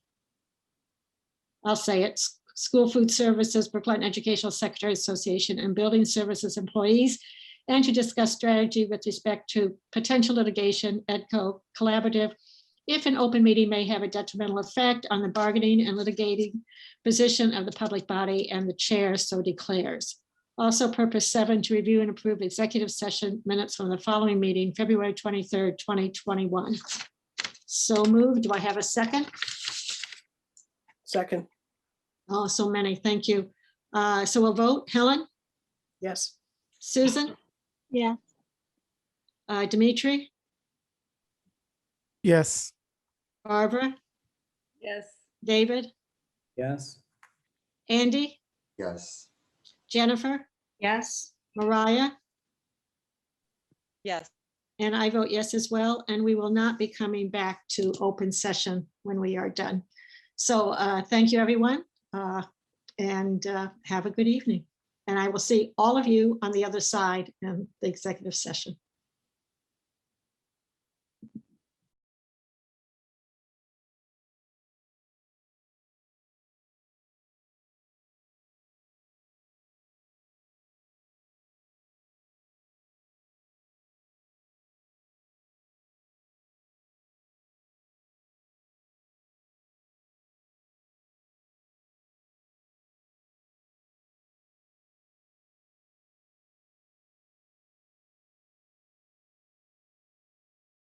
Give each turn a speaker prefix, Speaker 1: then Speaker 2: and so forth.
Speaker 1: I'll say it, S- School Food Services, Brookline Educational Secretary Association, and Building Services Employees, and to discuss strategy with respect to potential litigation, EDCO collaborative, if an open meeting may have a detrimental effect on the bargaining and litigating position of the public body and the chair so declares. Also, purpose seven, to review and approve executive session minutes from the following meeting, February twenty-third, twenty twenty-one. So moved. Do I have a second?
Speaker 2: Second,
Speaker 1: Oh, so many. Thank you. Uh, So we'll vote. Helen,
Speaker 2: yes.
Speaker 1: Susan,
Speaker 3: Yeah.
Speaker 1: uh, Dimitri,
Speaker 4: Yes.
Speaker 1: Barbara,
Speaker 3: Yes.
Speaker 1: David,
Speaker 5: Yes.
Speaker 1: Andy,
Speaker 5: Yes.
Speaker 1: Jennifer,
Speaker 3: Yes.
Speaker 1: Mariah,
Speaker 6: Yes.
Speaker 1: And I vote yes as well, and we will not be coming back to open session when we are done. So uh, thank you, everyone, uh, and uh, have a good evening. And I will see all of you on the other side in the executive session.